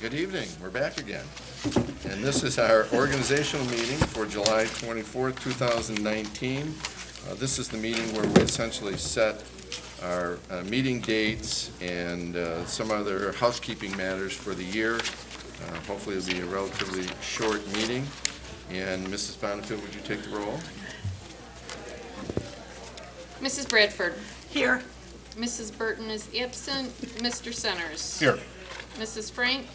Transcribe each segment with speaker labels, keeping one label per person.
Speaker 1: Good evening, we're back again. And this is our organizational meeting for July 24th, 2019. Uh, This is the meeting where we essentially set our uh, meeting dates and uh, some other housekeeping matters for the year. Uh, Hopefully, it'll be a relatively short meeting. And Mrs. Bonnefield, would you take the roll?
Speaker 2: Mrs. Bradford.
Speaker 3: Here.
Speaker 2: Mrs. Burton is absent. Mr. Centers.
Speaker 4: Here.
Speaker 2: Mrs. Frank.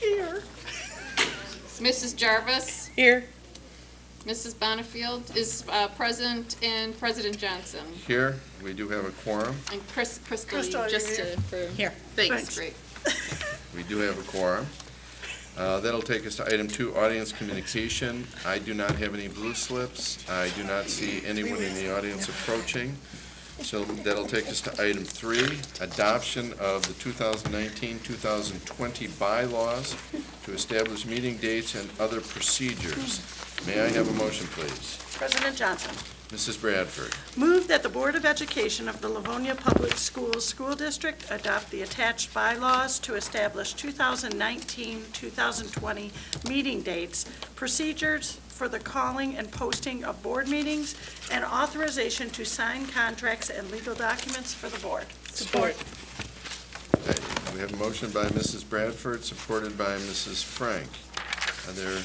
Speaker 3: Here.
Speaker 2: Mrs. Jarvis.
Speaker 3: Here.
Speaker 2: Mrs. Bonnefield is uh, present, and President Johnson.
Speaker 1: Here, we do have a quorum.
Speaker 2: And Chris, Crystal,
Speaker 3: Crystal, you're
Speaker 2: just
Speaker 3: here.
Speaker 2: to, for.
Speaker 3: Here.
Speaker 2: Thanks,
Speaker 3: Thanks.
Speaker 2: great.
Speaker 1: We do have a quorum. Uh, That'll take us to item two, audience communication. I do not have any blue slips. I do not see anyone in the audience approaching. So that'll take us to item three, adoption of the 2019-2020 bylaws to establish meeting dates and other procedures. May I have a motion, please?
Speaker 3: President Johnson,
Speaker 1: Mrs. Bradford,
Speaker 3: move that the Board of Education of the Livonia Public Schools School District adopt the attached bylaws to establish 2019-2020 meeting dates, procedures for the calling and posting of board meetings, and authorization to sign contracts and legal documents for the board. Support.
Speaker 1: we have a motion by Mrs. Bradford, supported by Mrs. Frank. Are there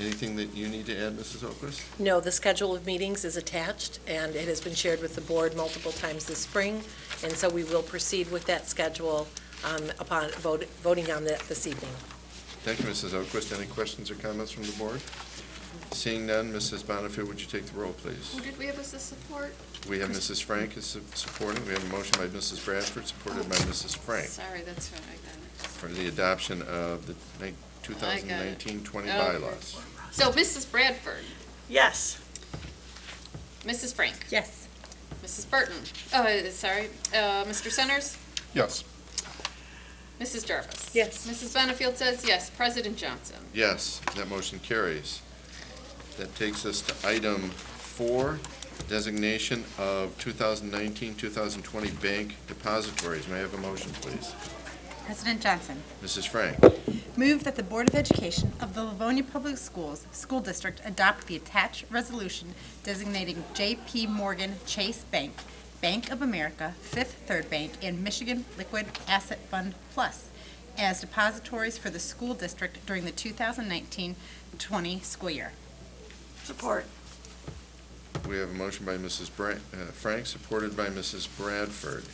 Speaker 1: anything that you need to add, Mrs. Oquist?
Speaker 5: No, the schedule of meetings is attached, and it has been shared with the board multiple times this spring, and so we will proceed with that schedule um, upon vote- voting on that this evening.
Speaker 1: Thank you, Mrs. Oquist. Any questions or comments from the board? Seeing none, Mrs. Bonnefield, would you take the roll, please?
Speaker 2: Who Oh, did we have as a support?
Speaker 1: We have Mrs. Frank is su- supporting, we have a motion by Mrs. Bradford, supported by Mrs. Frank,
Speaker 2: Sorry, that's right, I got it.
Speaker 1: for the adoption of the nine-
Speaker 2: I got it.
Speaker 1: 2019-20
Speaker 2: Okay.
Speaker 1: bylaws.
Speaker 2: So Mrs. Bradford,
Speaker 3: Yes.
Speaker 2: Mrs. Frank,
Speaker 5: Yes.
Speaker 2: Mrs. Burton, oh, sorry, uh, Mr. Centers,
Speaker 4: Yes.
Speaker 2: Mrs. Jarvis.
Speaker 5: Yes.
Speaker 2: Mrs. Bonnefield says yes. President Johnson.
Speaker 1: Yes, that motion carries. That takes us to item four, designation of 2019-2020 bank depositories. May I have a motion, please?
Speaker 6: President Johnson,
Speaker 1: Mrs. Frank?
Speaker 6: move that the Board of Education of the Livonia Public Schools School District adopt the attached resolution designating J.P. Morgan Chase Bank, Bank of America, Fifth Third Bank, and Michigan Liquid Asset Fund Plus as depositories for the school district during the 2019-20 school year.
Speaker 3: Support.
Speaker 1: We have a motion by Mrs. Bra- uh, Frank, supported by Mrs. Bradford.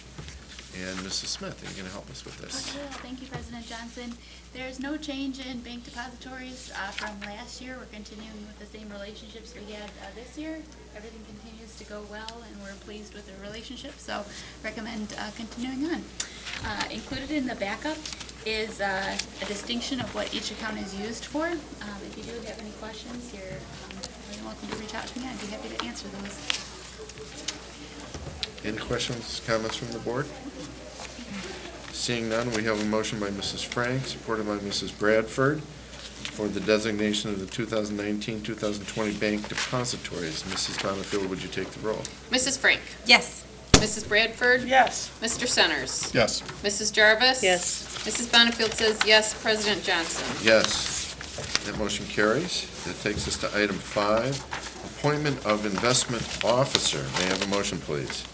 Speaker 1: And Mrs. Smith, are you going to help us with this?
Speaker 7: Yeah, Thank you, President Johnson. There is no change in bank depositories uh, from last year. We're continuing with the same relationships we had uh, this year. Everything continues to go well, and we're pleased with the relationship, so recommend uh, continuing on. Uh, Included in the backup is uh, a distinction of what each account is used for. Um, If you do have any questions, you're um, more than welcome to reach out to me. I'd be happy to answer those.
Speaker 1: Any questions, comments from the board? Seeing none, we have a motion by Mrs. Frank, supported by Mrs. Bradford, for the designation of the 2019-2020 bank depositories. Mrs. Bonnefield, would you take the roll?
Speaker 2: Mrs. Frank,
Speaker 6: Yes.
Speaker 2: Mrs. Bradford,
Speaker 3: Yes.
Speaker 2: Mr. Centers.
Speaker 4: Yes.
Speaker 2: Mrs. Jarvis?
Speaker 5: Yes.
Speaker 2: Mrs. Bonnefield says yes. President Johnson?
Speaker 1: Yes. That motion carries. That takes us to item five, appointment of investment officer. May I have a motion, please?